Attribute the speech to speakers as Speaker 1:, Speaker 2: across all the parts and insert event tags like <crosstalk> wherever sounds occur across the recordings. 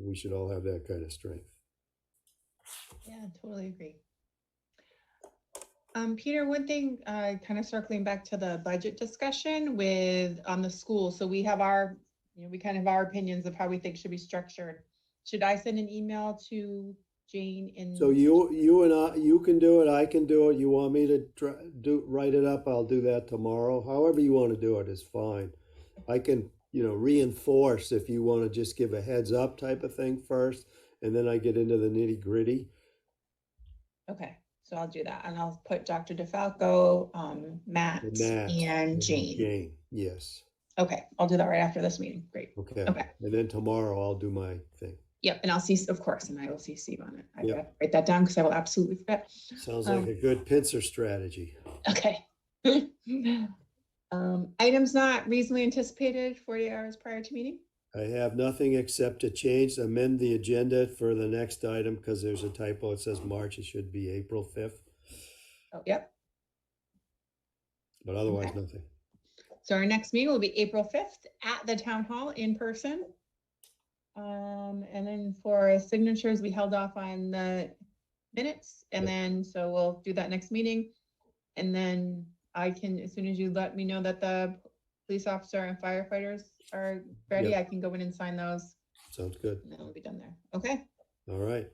Speaker 1: we should all have that kind of strength.
Speaker 2: Yeah, totally agree. Um, Peter, one thing, uh, kind of circling back to the budget discussion with, on the school, so we have our, you know, we kind of have our opinions of how we think should be structured. Should I send an email to Jane and?
Speaker 1: So you, you and I, you can do it, I can do it, you want me to try, do, write it up, I'll do that tomorrow, however you wanna do it is fine. I can, you know, reinforce if you wanna just give a heads up type of thing first, and then I get into the nitty gritty.
Speaker 2: Okay, so I'll do that, and I'll put Dr. DeFalco, um, Matt,
Speaker 1: And Matt
Speaker 2: and Jane.
Speaker 1: Jane, yes,
Speaker 2: Okay, I'll do that right after this meeting, great.
Speaker 1: okay.
Speaker 2: Okay.
Speaker 1: And then tomorrow I'll do my thing.
Speaker 2: Yep, and I'll see, of course, and I will see Steve on it. I
Speaker 1: Yep.
Speaker 2: gotta write that down, because I will absolutely forget.
Speaker 1: Sounds
Speaker 2: Um,
Speaker 1: like a good pincer strategy.
Speaker 2: Okay. <laughs> Um, items not reasonably anticipated forty hours prior to meeting?
Speaker 1: I have nothing except to change, amend the agenda for the next item, because there's a typo, it says March, it should be April fifth,
Speaker 2: Oh, yep.
Speaker 1: but otherwise
Speaker 2: Okay.
Speaker 1: nothing.
Speaker 2: So our next meeting will be April fifth at the town hall in person. Um, and then for signatures, we held off on the minutes and
Speaker 1: Yep.
Speaker 2: then, so we'll do that next meeting. And then I can, as soon as you let me know that the police officer and firefighters are ready,
Speaker 1: Yep.
Speaker 2: I can go in and sign those
Speaker 1: Sounds good.
Speaker 2: and then we'll be done there. Okay,
Speaker 1: All right.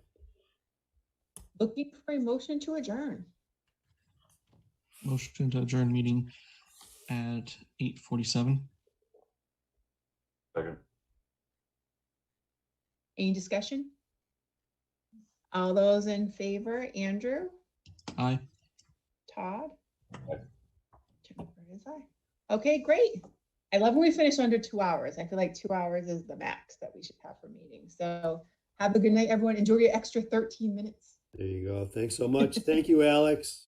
Speaker 2: looking for a motion to adjourn.
Speaker 3: Motion to adjourn meeting at eight forty-seven.
Speaker 4: Second.
Speaker 2: Any discussion? All those in favor, Andrew,
Speaker 3: Aye.
Speaker 2: Todd?
Speaker 4: Aye.
Speaker 2: Jennifer is aye. Okay, great. I love when we finish under two hours. I feel like two hours is the max that we should have for meetings. So have a good night, everyone. Enjoy your extra 13 minutes.
Speaker 1: There you go. Thanks so much. Thank you, Alex.